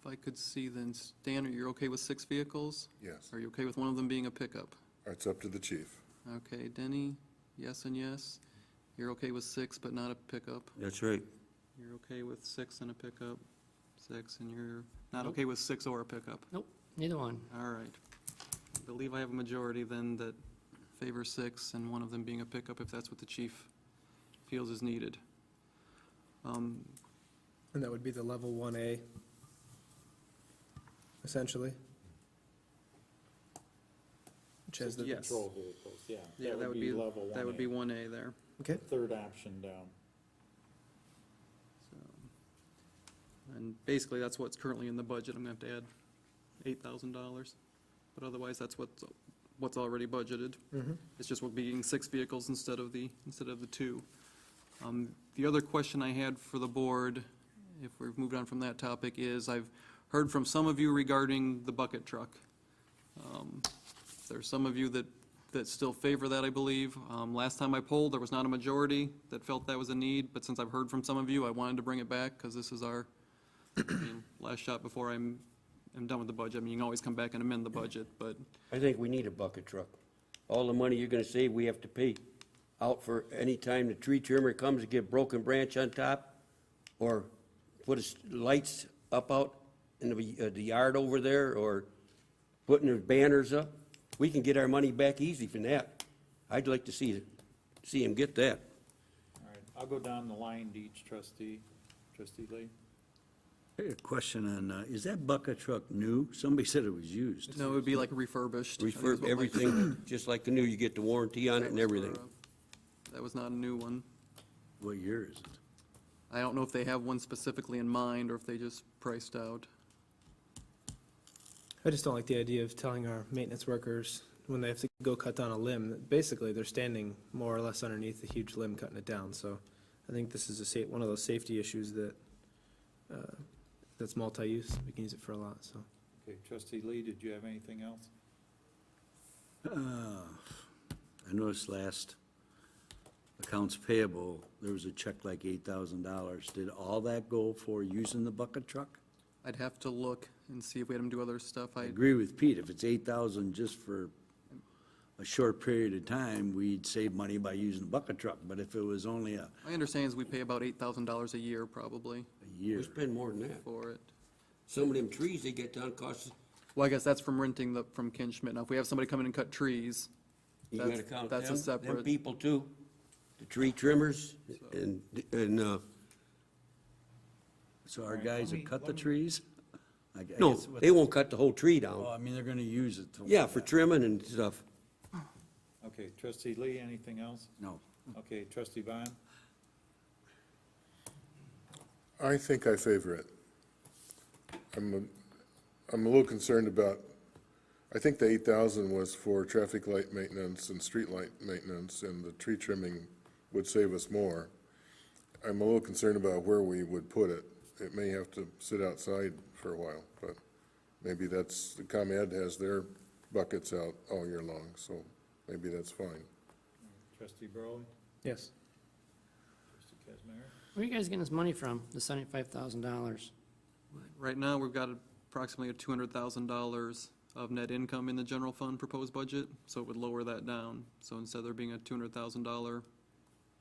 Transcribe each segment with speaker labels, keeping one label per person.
Speaker 1: If I could see then, Dan, are you okay with six vehicles?
Speaker 2: Yes,
Speaker 1: Are you okay with one of them being a pickup?
Speaker 2: it's up to the chief.
Speaker 1: Okay, Denny, yes and yes. You're okay with six, but not a pickup?
Speaker 3: That's right.
Speaker 1: You're okay with six and a pickup? Six, and you're not okay with six or a pickup?
Speaker 4: Nope, neither one.
Speaker 1: All right. I Believe I have a majority then that favor six and one of them being a pickup if that's what the chief feels is needed. Um,
Speaker 5: And that would be the level one A, essentially. Which has the.
Speaker 1: Yes.
Speaker 6: Patrol vehicles, yeah.
Speaker 1: Yeah, that would be,
Speaker 6: level
Speaker 1: that would be
Speaker 6: 1A,
Speaker 1: one A there.
Speaker 5: Okay,
Speaker 6: Third option down.
Speaker 1: So, And basically, that's what's currently in the budget. I'm gonna have to add eight thousand dollars. But otherwise, that's what's, what's already budgeted.
Speaker 5: mhm.
Speaker 1: It's just we're being six vehicles instead of the, instead of the two. Um, The other question I had for the board, if we've moved on from that topic, is I've heard from some of you regarding the bucket truck. Um, There's some of you that, that still favor that, I believe. Um, Last time I polled, there was not a majority that felt that was a need, but since I've heard from some of you, I wanted to bring it back because this is our I mean, last shot before I'm, I'm done with the budget. I mean, you can always come back and amend the budget, but
Speaker 3: I think we need a bucket truck. All the money you're gonna save, we have to pay out for any time the tree trimmer comes to get broken branch on top or put his lights up out in the, uh, the yard over there or putting his banners up. We can get our money back easy from that. I'd like to see, see him get that.
Speaker 6: All right, I'll go down the line to each trustee, trustee Lee.
Speaker 7: I had a question on, uh, is that bucket truck new? Somebody said it was used.
Speaker 1: no, it would be like refurbished. I think is what
Speaker 3: Refurb
Speaker 1: Mike
Speaker 3: everything, just like the new, you get the warranty on it and
Speaker 1: That was
Speaker 3: everything.
Speaker 1: for, uh, That was not a new one.
Speaker 7: What year is it?
Speaker 1: I don't know if they have one specifically in mind or if they just priced out.
Speaker 5: I just don't like the idea of telling our maintenance workers when they have to go cut down a limb, that basically they're standing more or less underneath a huge limb cutting it down, so I think this is a sa- one of those safety issues that, uh, that's multi-use, we can use it for a lot, so.
Speaker 6: Okay, trustee Lee, did you have anything else?
Speaker 7: Uh, I noticed last accounts payable, there was a check like eight thousand dollars. Did all that go for using the bucket truck?
Speaker 1: I'd have to look and see if we had them do other stuff.
Speaker 7: I
Speaker 1: I,
Speaker 7: agree with Pete, if it's eight thousand just for a short period of time, we'd save money by using the bucket truck, but if it was only a
Speaker 1: my understanding is we pay about eight thousand dollars a year probably
Speaker 7: a year,
Speaker 3: We spend more than that.
Speaker 1: for it.
Speaker 3: Some of them trees they get down cost, us-
Speaker 1: Well, I guess that's from renting the, from Ken Schmidt. Now, if we have somebody come in and cut trees,
Speaker 3: you gotta
Speaker 1: That's-
Speaker 3: count them,
Speaker 1: that's a
Speaker 3: them
Speaker 1: separate-
Speaker 3: people too. The tree trimmers and, and, uh,
Speaker 7: so our guys that cut the trees? I- I
Speaker 3: no,
Speaker 7: guess what-
Speaker 3: they won't cut the whole tree
Speaker 7: Well,
Speaker 3: down.
Speaker 7: I mean, they're gonna use it. to-
Speaker 3: Yeah, for trimming and stuff.
Speaker 6: Okay, trustee Lee, anything else?
Speaker 7: No.
Speaker 6: Okay, trustee Bond?
Speaker 2: I think I favor it. I'm, a- I'm a little concerned about, I think the eight thousand was for traffic light maintenance and street light maintenance, and the tree trimming would save us more. I'm a little concerned about where we would put it. It may have to sit outside for a while, but maybe that's, the ComEd has their buckets out all year long, so maybe that's fine.
Speaker 6: Trustee Burley?
Speaker 5: Yes.
Speaker 6: Trustee Kazmir?
Speaker 4: Where are you guys getting this money from, the seventy-five thousand dollars?
Speaker 1: right now, we've got approximately two hundred thousand dollars of net income in the general fund proposed budget, so it would lower that down. So instead of there being a two hundred thousand dollar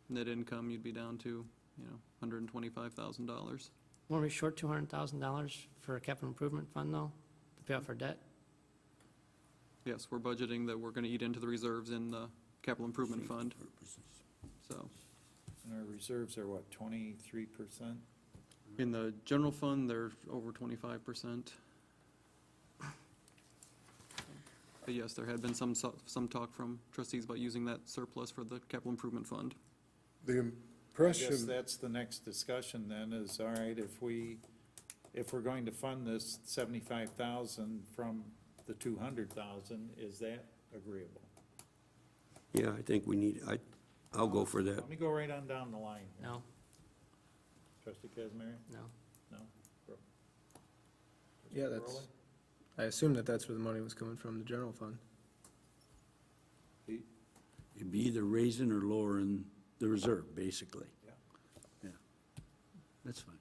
Speaker 1: net income, you'd be down to, you know, hundred and twenty-five thousand dollars.
Speaker 4: Weren't we short two hundred thousand dollars for a capital improvement fund though, to pay off our debt?
Speaker 1: Yes, we're budgeting that we're gonna eat into the reserves in the capital improvement fund, so.
Speaker 6: And our reserves are what, twenty-three percent?
Speaker 1: In the general fund, they're over twenty-five percent. But yes, there had been some, so- some talk from trustees about using that surplus for the capital improvement fund.
Speaker 2: The
Speaker 6: I guess
Speaker 2: impression,
Speaker 6: that's the next discussion then, is, all right, if we, if we're going to fund this seventy-five thousand from the two hundred thousand, is that agreeable?
Speaker 3: Yeah, I think we need, I, I'll go for that.
Speaker 6: Let me go right on down the line. here.
Speaker 4: No,
Speaker 6: Trustee Kazmir?
Speaker 4: no.
Speaker 6: No?
Speaker 5: Yeah, that's, I assume that that's where the money was coming from, the general fund.
Speaker 6: Burley?
Speaker 7: It'd be either raising or lowering the reserve, basically.
Speaker 6: Yeah.
Speaker 7: Yeah. That's fine.